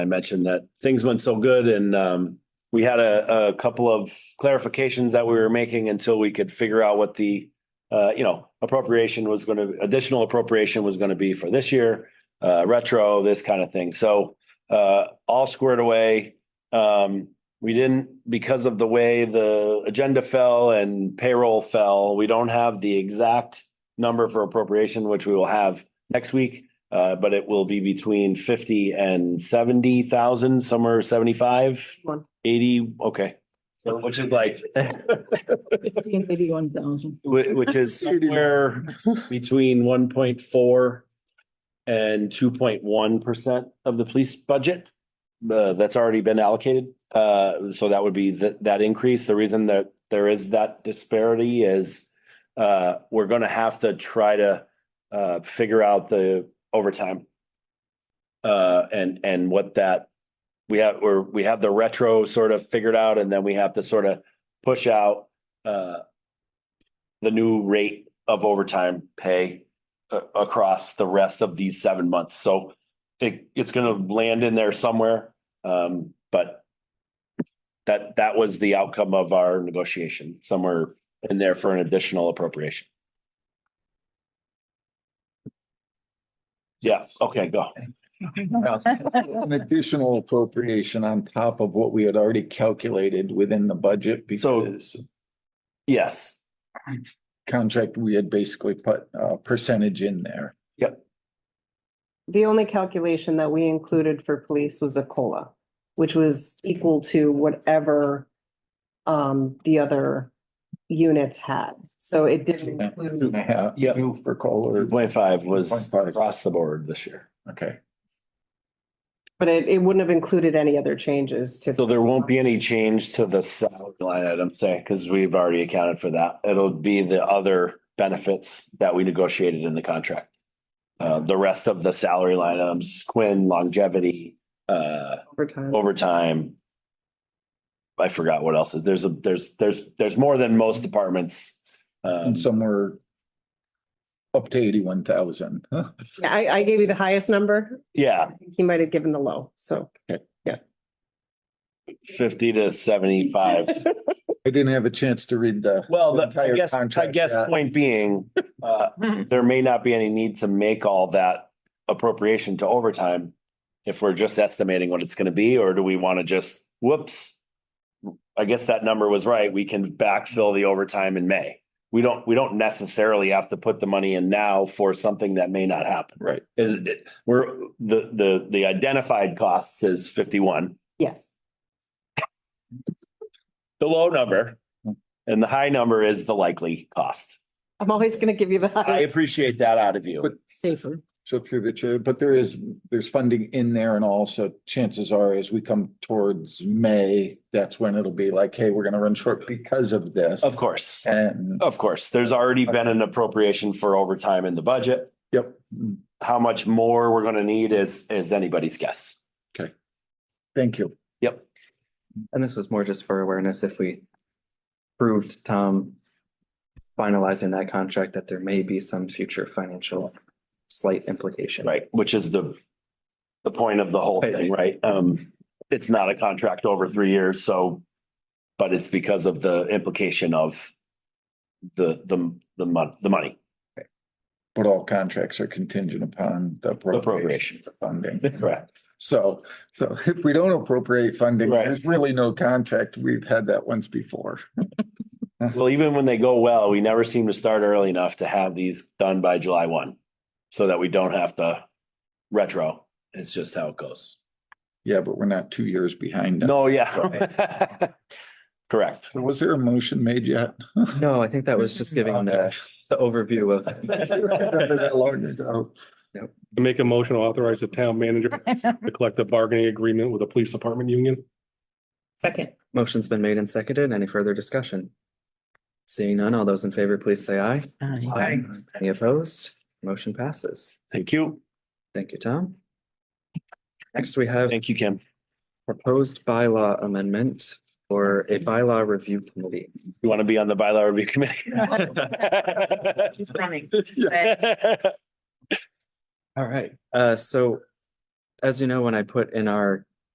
I mentioned that things went so good and um, we had a, a couple of clarifications that we were making until we could figure out what the uh, you know, appropriation was going to, additional appropriation was going to be for this year, uh, retro, this kind of thing. So uh, all squared away. Um, we didn't, because of the way the agenda fell and payroll fell, we don't have the exact number for appropriation, which we will have next week. Uh, but it will be between fifty and seventy thousand, somewhere seventy-five, One. eighty, okay. So which is like, Fifteen eighty-one thousand. Whi- Which is Eighty. somewhere between one point four and two point one percent of the police budget. uh, that's already been allocated. Uh, so that would be th- that increase. The reason that there is that disparity is uh, we're gonna have to try to uh, figure out the overtime. Uh, and, and what that, we have, we're, we have the retro sort of figured out and then we have to sort of push out uh, the new rate of overtime pay a- across the rest of these seven months. So it, it's gonna land in there somewhere, um, but that, that was the outcome of our negotiation, somewhere in there for an additional appropriation. Yeah, okay, go. An additional appropriation on top of what we had already calculated within the budget So- because Yes, contract, we had basically put a percentage in there. The only calculation that we included for police was a COLA, which was equal to whatever um, the other units had. So it Two didn't and include, a half, Yep. two three for Kohler. point five was 3.5. across the board this year. Okay, but it, it wouldn't have included any other changes So to. there won't be any change to the salary line item, say, because we've already accounted for that. It'll be the other benefits that we negotiated in the contract. Uh, the rest of the salary line items, Quinn, longevity, uh, overtime. overtime. I forgot what else is, there's a, there's, there's, there's more than most departments. Um, and some were up to eighty-one thousand. Yeah, I, I gave you the highest number. yeah, I think He might have given the low, so. fifty to seventy-five. I didn't have a chance to read the. Well, the- I the entire guess, I contract guess yet. point being, uh, there may not be any need to make all that appropriation to overtime if we're just estimating what it's gonna be, or do we wanna just, whoops? I guess that number was right. We can backfill the overtime in May. We don't, we don't necessarily have to put the money in now for something that may not happen. Right. Is it, we're, the, the, the identified costs is fifty-one, Yes, the low number. And the high number is the likely cost. I'm always going to give you the I highest. appreciate that out of you. But- Safer. So through the chair, but there is, there's funding in there and also chances are as we come towards May, that's when it'll be like, hey, we're gonna run short because of this. Of course, And, of course. There's already been an appropriation for overtime in the budget. yep, How much more we're gonna need is, is anybody's guess. thank you. And this was more just for awareness if we proved Tom finalizing that contract that there may be some future financial slight implication. Right. Which is the, the point of the whole thing, right? Um, it's not a contract over three years, so, but it's because of the implication of the, the, the mon, the money. But all contracts are contingent upon the Appropriation. appropriation for funding. Correct. So, so if we don't appropriate funding, Right. there's really no contract. We've had that once before. Well, even when they go well, we never seem to start early enough to have these done by July one. So that we don't have to retro. It's just how it goes. Yeah, but we're not two years behind. No, yeah. Correct. So Was there a motion made yet? No, I think that was just giving the, the overview of, I remember that long ago. I Make a motion to authorize the town manager to collect a bargaining agreement with the police department union. Second. motion's been made and seconded. Any further discussion? Seeing none, all those in favor, please say aye. Aye. Any opposed? Motion passes. Thank you. Thank you, Tom. Next, we have Thank you, Kim. proposed bylaw amendment for a bylaw review committee. You want to be on the bylaw review committee? She's running. All right, uh, so as you know, when I put in our